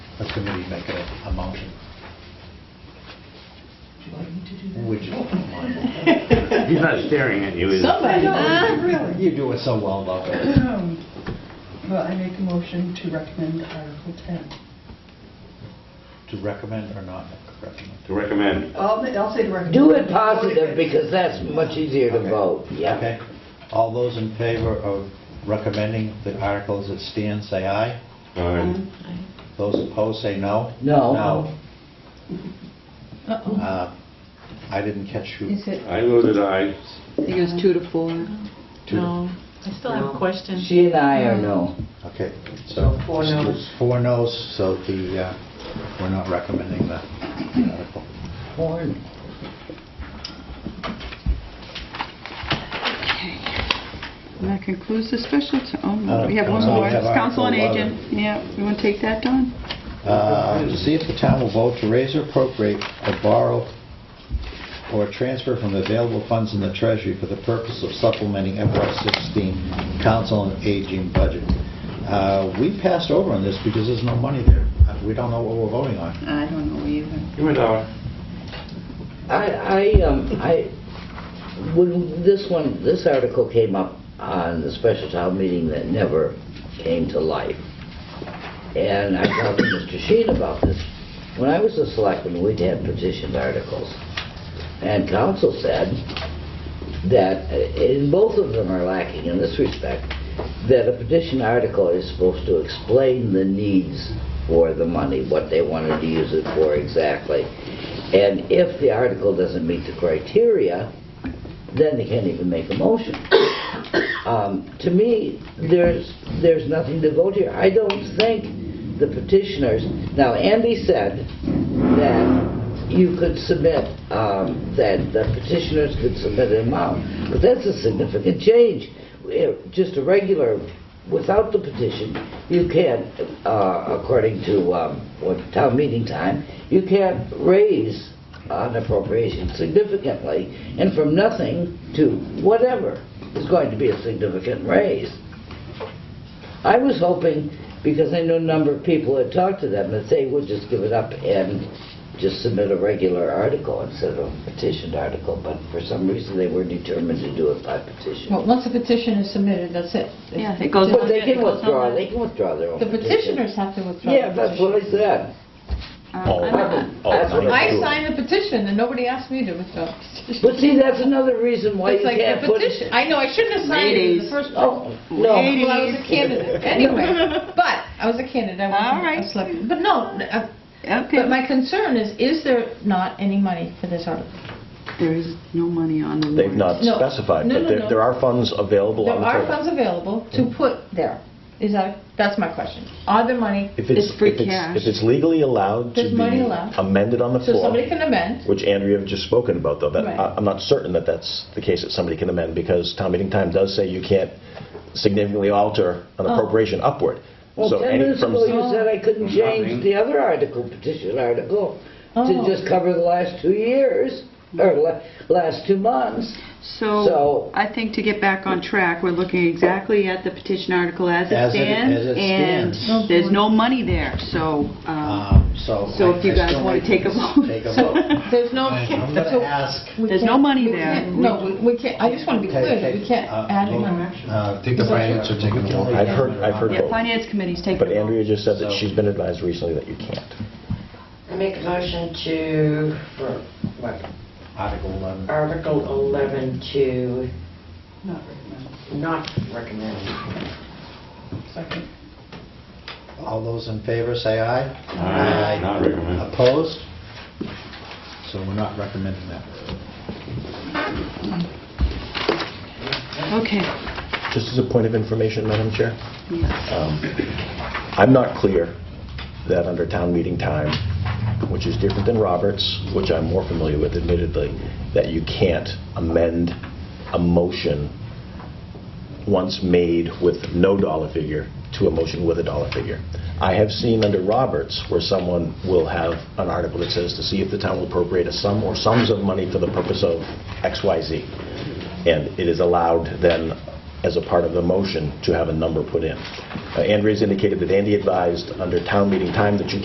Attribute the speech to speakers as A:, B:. A: a committee make a, a motion,
B: Do you want me to do that?
A: which is fine.
C: He's not staring at you, is he?
B: Somebody, Uh,
D: Ah.
B: really.
A: You're doing so well, though.
B: Um, Well, I make a motion to recommend Article 10.
A: To recommend or not recommend?
C: To recommend.
B: I'll, I'll say to recommend.
E: Do it positive, because that's much easier to
A: Okay.
E: vote, yeah.
A: Okay. All those in favor of recommending the articles that stand, say aye.
C: Um,
A: Those opposed, say no.
E: No.
A: No. Uh, I didn't catch who.
D: Is it,
C: I voted aye.
D: I think it was two to four.
A: Two.
F: No, I still have a question.
E: She and I are no.
A: Okay, so.
B: So four noes.
A: Four noes, so the, uh, we're not recommending the article.
E: Horn.
G: That concludes the special, t- oh,
A: Uh,
G: no, we have one
A: Council,
G: more,
A: we have
G: It's council on
A: Article
G: agent, yeah, you want to take that, Don?
A: Uh, to See if the town will vote to raise or appropriate or borrow or transfer from the available funds in the treasury for the purpose of supplementing FY16 council and aging budget. Uh, We passed over on this because there's no money there. Uh, We don't know what we're voting on.
G: I don't know either.
C: Give me a dollar.
E: I, I, um, I, when this one, this article came up on the special town meeting that never came to life. And I talked to Mr. Sheen about this. When I was a selectman, we'd had petitioned articles. And council said that, uh, and both of them are lacking in this respect, that a petition article is supposed to explain the needs for the money, what they wanted to use it for exactly. And if the article doesn't meet the criteria, then they can't even make a motion. Um, To me, there's, there's nothing to vote here. I don't think the petitioners, now Andy said that you could submit, um, that the petitioners could submit an amount, but that's a significant change. Eh, Just a regular, without the petition, you can't, uh, according to um, what town meeting time, you can't raise an appropriation significantly, and from nothing to whatever is going to be a significant raise. I was hoping, because I know a number of people had talked to them, that they would just give it up and just submit a regular article instead of a petitioned article, but for some reason, they were determined to do it by petition.
D: Well, once a petition is submitted, that's it.
G: Yeah, it goes
E: But
G: on.
E: they
G: it
E: can
G: goes
E: withdraw,
G: on.
E: they can withdraw their own
D: The
E: petition.
D: petitioners have to withdraw. the
E: Yeah, that's
D: petition.
E: what I said.
G: Uh, I don't-
A: Oh,
E: That's what
D: I
E: I-
D: signed the petition, and nobody asked me to withdraw the petition.
E: But see, that's another reason why you
D: It's like
E: can't
D: the
E: put...
D: petition, I know, I shouldn't have signed it in the
G: Ladies.
D: first place.
E: Oh,
D: Well,
E: no.
D: I was a candidate, anyway, but, I was a candidate, I
G: All right.
D: wasn't a selectman. But no, uh, but
G: Okay,
D: my concern is, is there not any money for this article?
G: there is no money on the warrant.
H: They've not
D: No.
H: specified,
D: No,
H: but
D: no, no.
H: there there are funds available
D: There
H: on the
D: are
H: table.
D: funds available to put there, is that, that's my question. Are there money,
H: If
G: It's free
H: if it's-
G: cash.
H: If it's legally allowed to
D: There's money
H: be
D: allowed.
H: amended on the
D: so
H: floor,
D: somebody can amend,
H: which Andrea had just spoken about, though, that,
D: Right.
H: I- I'm not certain that that's the case, that somebody can amend, because town meeting time does say you can't significantly alter an appropriation upward.
E: Oh. Well,
H: So
E: 10
H: any-
E: minutes
H: from-
E: ago, you said I couldn't change
C: Nothing.
E: the other article, petition article, to
D: Oh.
E: just cover the last two years, or la- last two months. So-
G: So, I think to get back on track, we're looking exactly at the petition article as it
A: As it-
G: stands.
A: as it
G: And
A: stands.
G: there's no money there, so, um,
A: Um, So.
G: So
A: I-
G: if you
A: I
G: guys
A: still
G: wanna
A: like
G: take a
A: this.
G: vote.
A: Take a
D: so,
A: vote.
D: there's no...
A: I'm going
D: so-
A: to ask.
D: we
G: There's no
D: can't-
G: money
D: we
G: there.
D: can't- No, we- we can't, I just want to be clear, that we can't add any money.
A: uh, Take
D: the finance
A: or take a vote.
H: I've heard- I've heard
G: yeah, finance committee's taking.
H: But
G: a vote.
H: Andrea just said that
A: So-
H: she's been advised recently that you can't.
I: I make a motion to, for what,
A: Article 11.
I: Article 11 to
B: Not recommend.
I: not recommend.
B: Second.
A: All those in favor, say aye.
C: Aye. Not recommend.
A: Opposed? So we're not recommending that.
G: Okay,
H: Just as a point of information, Madam Chair,
G: yeah.
H: um, I'm not clear that under town meeting time, which is different than Roberts, which I'm more familiar with admittedly, that you can't amend a motion once made with no dollar figure to a motion with a dollar figure. I have seen under Roberts where someone will have an article that says to see if the town will appropriate a sum or sums of money for the purpose of X, Y, Z. And it is allowed then, as a part of the motion, to have a number put in. Uh, Andrea's indicated that Andy advised under town meeting time that you